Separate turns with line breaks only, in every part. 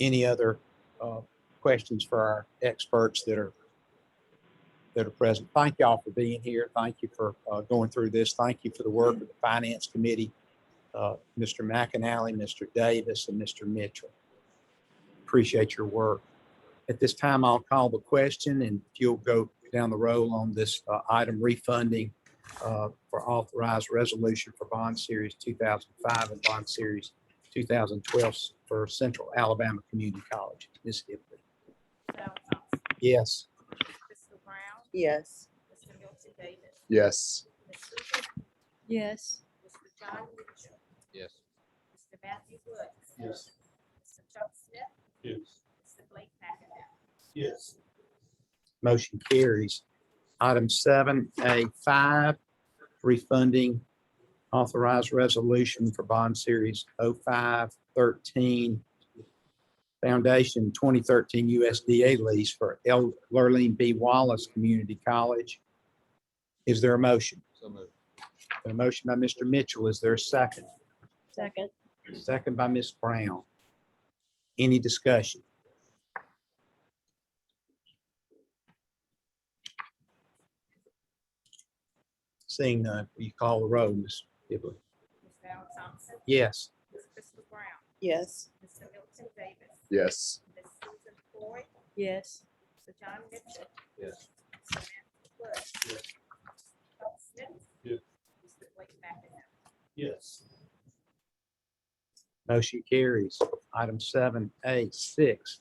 any other uh, questions for our experts that are that are present. Thank y'all for being here. Thank you for uh, going through this. Thank you for the work of the Finance Committee, uh, Mr. McInally, Mr. Davis, and Mr. Mitchell. Appreciate your work. At this time, I'll call the question, and if you'll go down the roll on this uh, item refunding uh, for authorized resolution for bond series 2005 and bond series 2012 for Central Alabama Community College. Ms. Hibble.
Sal Thompson,
Yes.
Mr. Brown,
Yes.
Mr. Milton Davis,
Yes.
Ms. Hooper,
Yes.
Mr. John Mitchell,
Yes.
Mr. Matthew Woods.
Yes.
Mr. Chuck Smith,
Yes.
Mr. Blake McInnes.
Yes.
Motion carries. Item seven A five, refunding authorized resolution for bond series 0513 Foundation twenty thirteen USDA lease for El- Lurleen B. Wallace Community College. Is there a motion?
So moved.
A motion by Mr. Mitchell. Is there a second?
Second.
Second by Ms. Brown. Any discussion? Seeing none, will you call the roll, Ms. Hibble?
Ms. Val Thompson,
Yes.
Ms. Crystal Brown,
Yes.
Mr. Milton Davis,
Yes.
Ms. Susan Floyd,
Yes.
Mr. John Mitchell.
Yes.
Mr. Matthew Woods.
Yes.
Chuck Smith.
Yes.
Mr. Blake McInnes.
Yes.
Motion carries. Item seven A six,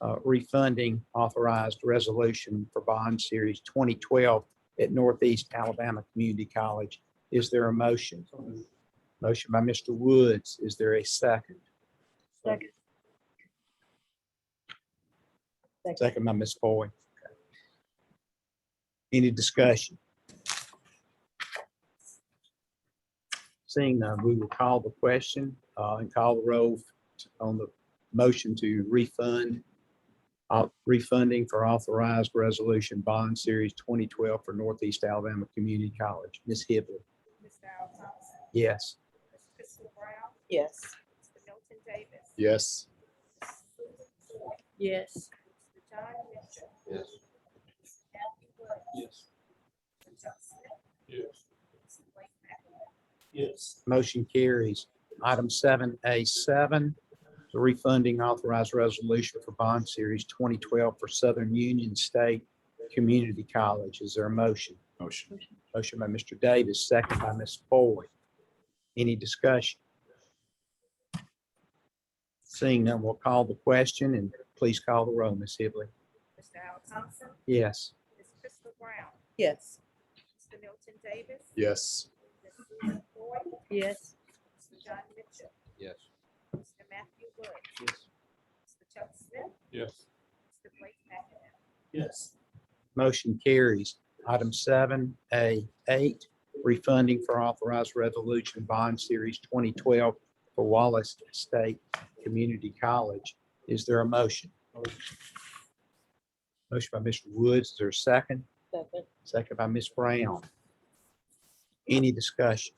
uh, refunding authorized resolution for bond series twenty twelve at Northeast Alabama Community College. Is there a motion? Motion by Mr. Woods. Is there a second?
Second.
Second by Ms. Boyd. Any discussion? Seeing none, we will call the question uh, and call the roll t- on the motion to refund, uh, refunding for authorized resolution bond series 2012 for Northeast Alabama Community College. Ms. Hibble,
Ms. Val Thompson,
yes.
Ms. Crystal Brown,
Yes.
Mr. Milton Davis.
Yes.
Ms. Susan Floyd,
Yes.
Mr. John Mitchell.
Yes.
Mr. Matthew Woods.
Yes.
Mr. Chuck Smith,
Yes.
Mr. Blake McInnes.
Yes.
Motion carries. Item seven A seven, the refunding authorized resolution for bond series twenty twelve for Southern Union State Community College. Is there a motion?
Motion.
Motion by Mr. Davis, second by Ms. Boyd. Any discussion? Seeing none, we'll call the question and please call the roll, Ms. Hibble.
Mr. Al Thompson,
Yes.
Ms. Crystal Brown,
Yes.
Mr. Milton Davis,
Yes.
Ms. Susan Floyd,
Yes.
Mr. John Mitchell,
Yes.
Mr. Matthew Woods, Mr. Chuck Smith,
Yes.
Mr. Blake McInnes.
Yes.
Motion carries. Item seven A eight, refunding for authorized resolution bond series twenty twelve for Wallace State Community College. Is there a motion? Motion by Mr. Woods, is there a second?
Second.
Second by Ms. Brown. Any discussion?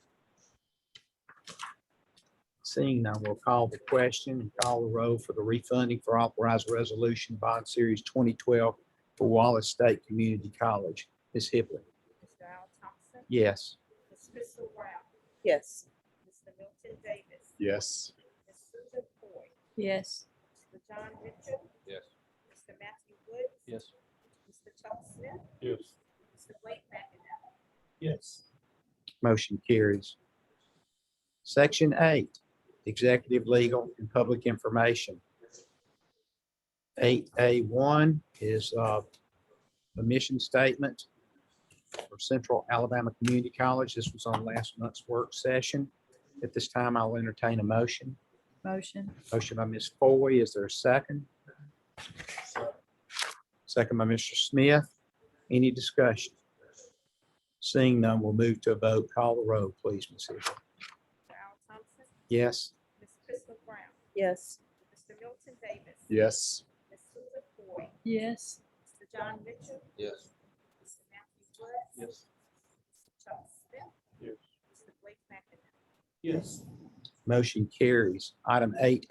Seeing none, we'll call the question and call the roll for the refunding for authorized resolution bond series 2012 for Wallace State Community College. Ms. Hibble?
Mr. Al Thompson,
Yes.
Ms. Crystal Brown,
Yes.
Mr. Milton Davis,
Yes.
Ms. Susan Floyd,
Yes.
Mr. John Mitchell,
Yes.
Mr. Matthew Woods,
Yes.
Mr. Chuck Smith,
Yes.
Mr. Blake McInnes.
Yes.
Motion carries. Section eight, executive, legal, and public information. Eight A one is uh, the mission statement for Central Alabama Community College. This was on last month's work session. At this time, I'll entertain a motion.
Motion.
Motion by Ms. Foy. Is there a second? Second by Mr. Smith. Any discussion? Seeing none, we'll move to a vote. Call the roll, please, Ms. Hill.
Mr. Al Thompson,
Yes.
Ms. Crystal Brown,
Yes.
Mr. Milton Davis,
Yes.
Ms. Susan Floyd,
Yes.
Mr. John Mitchell,
Yes.
Mr. Matthew Woods.
Yes.
Mr. Chuck Smith.
Yes.
Mr. Blake McInnes.
Yes.
Motion carries. Item eight